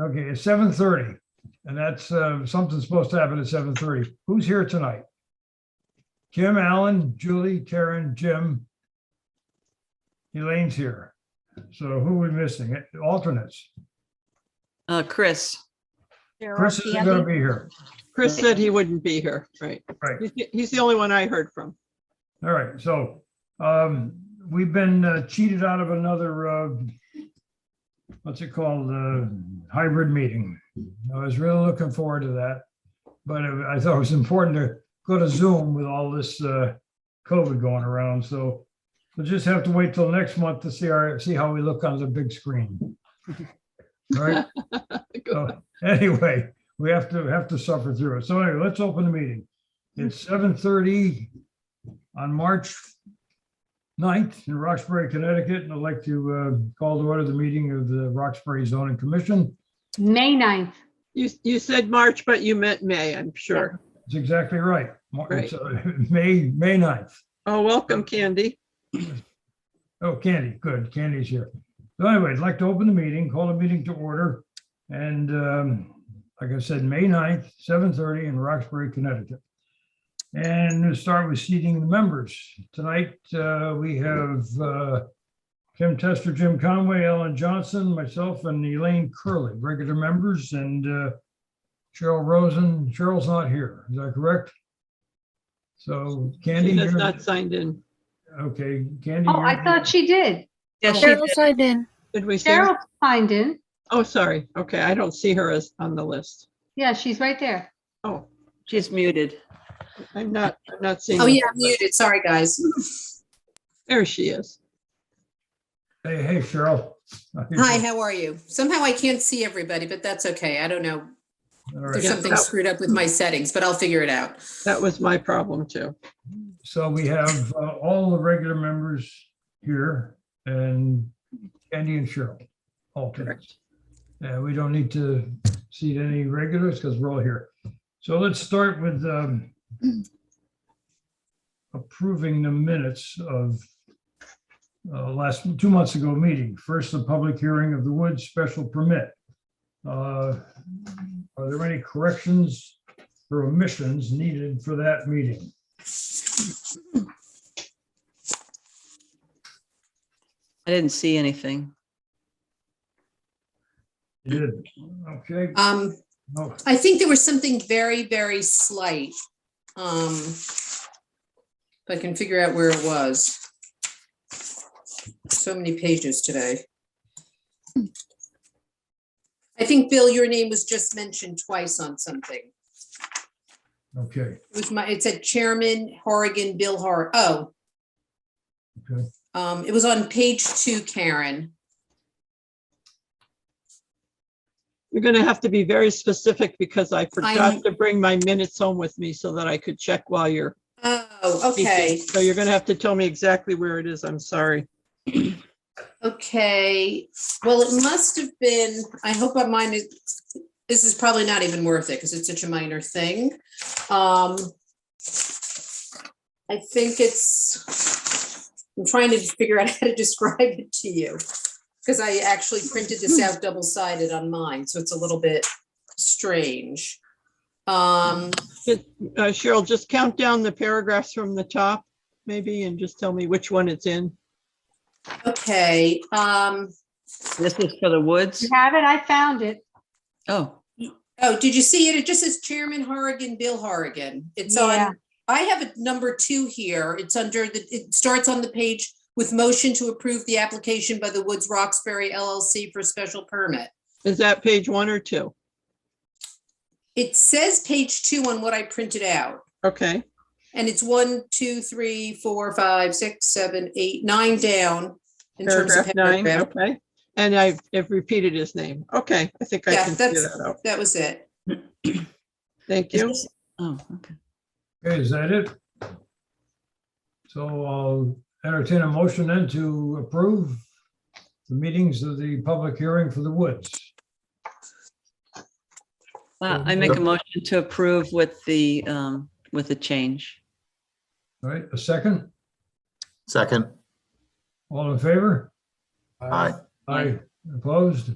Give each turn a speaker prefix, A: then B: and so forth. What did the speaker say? A: Okay, it's seven thirty, and that's, uh, something's supposed to happen at seven thirty. Who's here tonight? Jim, Alan, Julie, Karen, Jim. Elaine's here. So who are we missing? Alternates.
B: Uh, Chris,
A: Chris isn't gonna be here.
C: Chris said he wouldn't be here, right?
A: Right.
C: He's- He's the only one I heard from.
A: All right, so, um, we've been uh, cheated out of another, uh, what's it called, uh, hybrid meeting. I was really looking forward to that. But I I thought it was important to go to Zoom with all this, uh, COVID going around, so we'll just have to wait till next month to see our, see how we look on the big screen. All right, so anyway, we have to, have to suffer through it. So anyway, let's open the meeting. It's seven thirty on March 9th in Roxbury, Connecticut, and I'd like to uh, call to order the meeting of the Roxbury Zoning Commission.
D: May 9th.
C: You, you said March, but you meant May, I'm sure.
A: That's exactly right. Mar- it's, uh, May, May 9th.
C: Oh, welcome, Candy.
A: Oh, Candy, good. Candy's here. So anyway, I'd like to open the meeting, call the meeting to order. And um, like I said, May 9th, 7:30 in Roxbury, Connecticut. And we'll start with seating the members. Tonight, uh, we have uh, Kim Tester, Jim Conway, Ellen Johnson, myself, and Elaine Curley, regular members, and uh, Cheryl Rosen. Cheryl's not here, is that correct? So Candy,
C: She has
A: you're-
C: not signed in.
A: okay, Candy.
D: Oh, I
A: you're-
D: thought she did.
B: yes, she
E: Cheryl
B: did.
E: signed in.
C: Did we see her?
D: Cheryl signed in.
C: Oh, sorry. Okay, I don't see her as on the list.
D: Yeah, she's right there.
C: Oh,
B: she's muted.
C: I'm not, I'm not seeing.
F: Oh,
C: her.
F: yeah, muted. Sorry, guys.
C: There she is.
A: Hey, hey, Cheryl.
F: Hi, how are you? Somehow I can't see everybody, but that's okay. I don't know.
A: All
F: There's
A: right,
C: Yeah.
F: something screwed up with my settings, but I'll figure it out.
C: That was my problem too.
A: so we have uh, all the regular members here and Andy and Cheryl. Alternates. And we don't need to seat any regulars because we're all here. So let's start with um, approving the minutes of uh, last, two months ago meeting. First, the public hearing of the Woods special permit. Uh, Are there any corrections or omissions needed for that meeting?
B: I didn't see anything.
A: You did, okay,
F: Um,
A: no,
F: I think there was something very, very slight. Um, if I can figure out where it was. So many pages today. I think, Bill, your name was just mentioned twice on something.
A: okay,
F: It was my, it said Chairman Horrigan, Bill Hor, oh.
A: Okay.
F: Um, it was on page two, Karen.
C: You're going to have to be very specific because I
F: I'm-
C: forgot to bring my minutes home with me so that I could check while you're.
F: Oh,
C: speaking.
F: okay,
C: So you're going to have to tell me exactly where it is. I'm sorry.
F: okay. Well, it must have been, I hope I mine is, this is probably not even worth it because it's such a minor thing. Um. I think it's, I'm trying to figure out how to describe it to you. Because I actually printed this out double sided on mine, so it's a little bit strange. Um.
C: Uh, Cheryl, just count down the paragraphs from the top, maybe, and just tell me which one it's in.
F: Okay, um,
B: This is for the woods.
D: You have it? I found it.
B: Oh,
F: oh, did you see it? It just says Chairman Horrigan, Bill Horrigan. It's
D: Yeah.
F: on, I have a number two here. It's under the, it starts on the page with motion to approve the application by the Woods Roxbury LLC for special permit.
C: Is that page one or two?
F: It says page two on what I printed out.
C: Okay,
F: And it's one, two, three, four, five, six, seven, eight, nine down. in terms of
C: paragraph nine,
F: paragraph.
C: okay. And I've, I've repeated his name. Okay, I think I
F: Yeah,
C: can figure
F: that's-
C: that out.
F: That was it.
C: Thank
B: is
C: you.
B: this- oh, okay.
A: Okay, is that it? So I'll entertain a motion then to approve the meetings of the public hearing for the Woods.
B: Well, I make a motion to approve with the, um, with the change.
A: All right, a second,
G: Second,
A: all in favor?
G: aye.
A: Aye, opposed?